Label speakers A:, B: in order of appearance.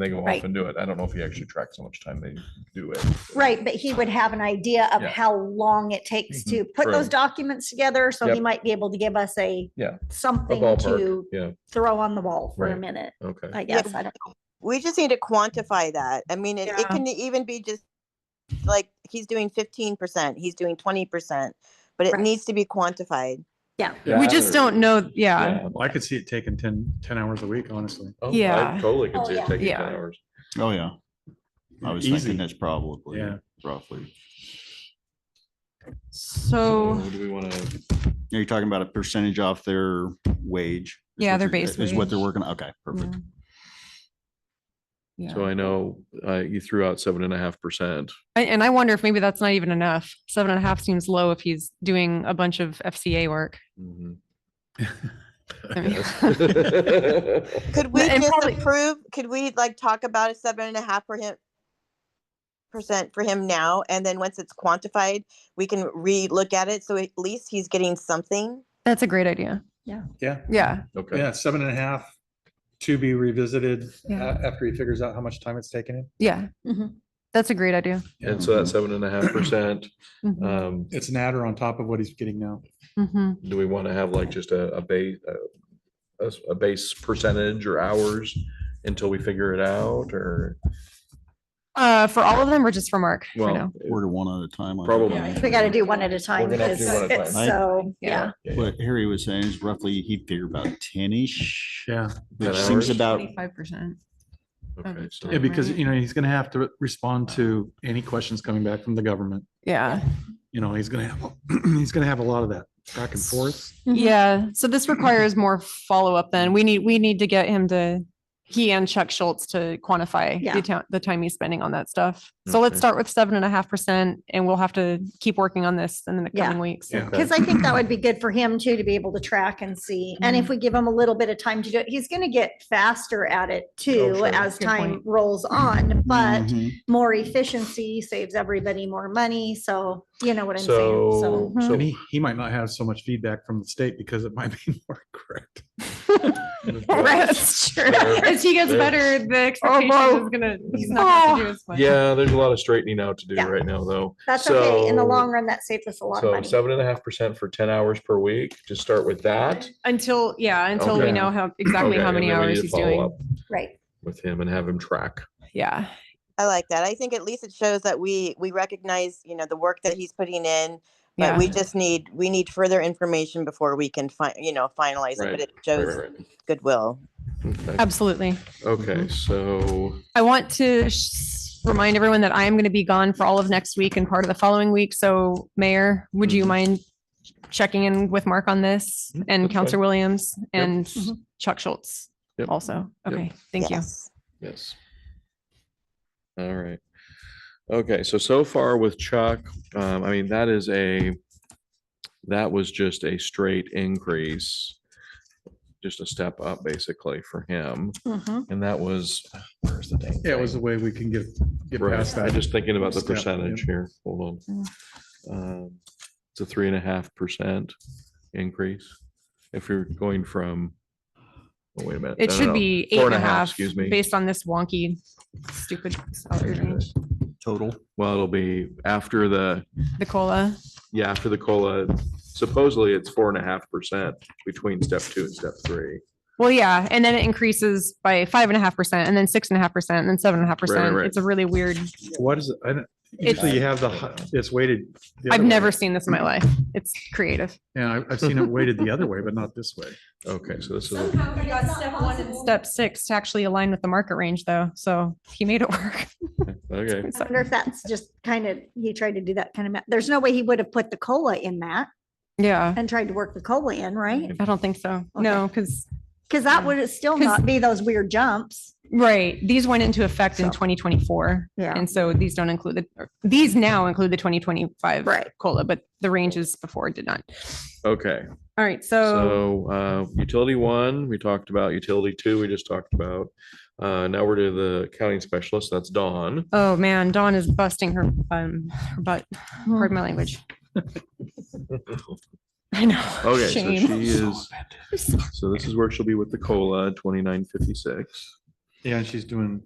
A: they go off
B: Right.
A: and do it. I don't know if he actually tracks how much time they do it.
B: Right, but he would have an idea of
A: Yeah.
B: how long it takes
A: Mhm,
B: to put those
A: true.
B: documents together, so he
C: Yep.
B: might be able to give us a.
A: Yeah.
C: A
B: Something
C: ballpark,
B: to
C: yeah,
B: throw on the wall for a
C: Right.
B: minute,
C: okay.
B: I
D: Yeah,
B: guess, I don't,
D: We just need to quantify that. I mean, it,
B: Yeah.
D: it can even be just like he's doing fifteen percent, he's doing twenty percent, but it
B: Right.
D: needs to be quantified.
E: We just don't know, yeah.
C: Yeah.
F: I could see it taking 10 10 hours a week, honestly.
C: Oh, I
E: Yeah.
C: Totally
B: Oh,
C: could see
B: yeah.
C: it taking ten
E: Yeah.
C: hours.
G: Oh, yeah. I was
F: Easy.
G: thinking that's probably
F: Yeah.
G: roughly.
E: So,
C: Do we want to?
G: Are you talking about a percentage off their wage? is
E: Yeah,
G: what
E: their
G: you're-
E: base
G: Is what they're
E: wage.
G: working, okay, perfect.
E: yeah.
C: So I know, uh, you threw out seven and a half percent.
E: I- and I wonder if maybe that's not even enough. Seven and a half seems low if he's doing a bunch of FCA work.
C: Mm-hmm.
E: I mean-
D: Could we
E: and
D: just
E: probably-
D: approve? Could we like talk about a seven and a half for him percent for him now, and then once it's quantified, we can re-look at it. So at least he's getting something.
E: That's a great idea.
F: Yeah.
E: Yeah.
C: Okay,
F: Yeah. Seven and a half to be revisited a-
E: Yeah.
F: after he figures out how much time it's taken him.
E: Yeah.
B: Mhm.
E: That's a great idea.
C: and so that seven and a half percent,
E: Mhm,
C: um,
F: It's an adder on top of what he's getting now.
E: mhm.
C: do we want to have like just a, a base, a, s- a base percentage or hours until we figure it out or?
E: Uh, for all of them or just for Mark? for now?
C: Well,
G: Order one at a time. I think.
C: Probably.
B: yeah, we gotta do one at a time,
A: gonna have to
B: because
A: do one at a
B: it's
G: time.
B: so, yeah.
E: Yeah.
C: yeah, yeah.
G: What Harry was saying is roughly, he'd figure about ten-ish,
F: Yeah.
G: which
C: 10
G: seems
C: hours?
G: about,
E: 25%.
C: Okay, so-
F: Yeah, because,
E: Right.
F: you know, he's going to have to respond to any questions coming back from the government.
E: Yeah.
F: You know, he's going to have, he's going to have a lot of that back and forth.
B: Mhm.
E: Yeah, so this requires more follow-up then. We need, we need to get him to, he and Chuck Schultz to quantify
B: Yeah.
E: the town, the time he's spending on that stuff. So let's
C: Okay.
E: start with seven and a half percent and we'll have to keep working on this in the
B: Yeah.
E: coming weeks.
C: Yeah.
B: Because I think that would be good for him too, to be able to track and see. And if we give him a little bit of time to do it, he's gonna get faster at it too
A: Oh,
C: sure.
B: as
E: Good
B: time
E: point.
B: rolls on, but
A: Mm-hmm.
G: Mhm.
B: more efficiency saves everybody more money. So you know what I'm saying?
C: So,
B: So. hmm.
C: so
F: And he, he might not have so much feedback from the state because it might be more correct.
E: That's true.
C: Fair.
E: As he gets
C: Fair.
E: better, the expectation
C: well.
E: is gonna, he's not gonna do as much.
C: yeah, there's a lot of straightening out to do
B: Yeah.
C: right now, though.
B: That's okay. In the
C: So-
B: long run, that saves us a lot of
C: So
B: money.
C: seven and a half percent for ten hours per week. Just start with that.
E: Until, yeah, until
C: Okay.
E: we know how, exactly
C: Okay,
E: how
C: and
E: many
C: then we need
E: hours
C: to
E: he's
C: follow
E: doing.
C: up
B: Right.
C: With him and have him track.
E: Yeah.
D: I like that. I think at least it shows that we we recognize you know the work that he's putting in. But
E: Yeah.
D: we just need, we need further information before we can find, you know, finalize it,
C: Right,
D: but it
C: Right,
D: shows
C: right,
D: goodwill.
C: right. Okay.
E: Absolutely.
C: Okay, so
E: I want to sh- remind everyone that I am going to be gone for all of next week and part of the following week. So Mayor, would you
C: Mhm.
E: mind checking in with Mark on this
C: Mm,
E: and
C: that's
E: Counselor
C: fine.
E: Williams
C: Yep.
E: and Chuck Schultz
C: Yep.
E: also?
C: Yep.
E: Okay, thank you.
D: Yes.
C: Mm-hmm. Yes. All right. Okay, so so far with Chuck, um, I mean, that is a, that was just a straight increase. Just a step up basically for him.
B: Mhm.
C: And that was, where's the dang?
F: Yeah, it was a
C: thing?
F: way we can get, get past
C: Right,
F: that.
C: I'm just thinking about the
F: Step, yeah.
C: percentage here. Hold on. Um, It's a three and a half percent increase. If you're going from, oh, wait a minute.
E: It
C: no, no,
E: should
C: no.
E: be eight
C: Four
E: and a half,
C: Excuse me.
E: based on this wonky, stupid salary range,
G: total.
C: Well, it'll be after the,
E: the COLA.
C: yeah, after the COLA, supposedly it's four and a half percent between step two and step three.
E: Well, yeah, and then it increases by five and a half percent and then six and a half percent and then seven and a half percent.
C: right.
E: It's a really weird,
F: What is it? I don't,
E: It's-
F: usually you have the, hi- it's weighted. the
E: I've
F: other way.
E: never seen this in my life. It's creative.
F: Yeah, I- I've seen it weighted the other way, but not this way.
C: Okay, so this is, a-
E: Somehow he got step one and step six to actually align with the market range though, so he made it work.
C: okay,
B: I wonder if that's just kind of, he tried to do that kind of, ma- there's no way he would have put the COLA in that
E: Yeah,
B: and tried to work the COLA in,
C: Mm-hmm.
B: right?
E: I don't think so. No, because,
B: Because that
E: Yeah.
B: would still
E: 'Cause-
B: not be those weird jumps.
E: right, these went into effect in
B: So.
E: twenty twenty-four.
B: Yeah.
E: And so these don't include the, or these now include the twenty twenty-five.
B: Right.
E: COLA, but the ranges before did not.
C: okay.
E: All right, so
C: So, uh, utility one, we talked about, utility two, we just talked about. Uh, now we're to the accounting specialist, that's Dawn.
E: Oh man, Dawn is busting her um her butt. Pardon my
B: Oh.
E: language. I know.
C: Okay, so
E: Shame.
C: she is, so this is where she'll be with the COLA, twenty-nine fifty-six.
F: Yeah, and she's doing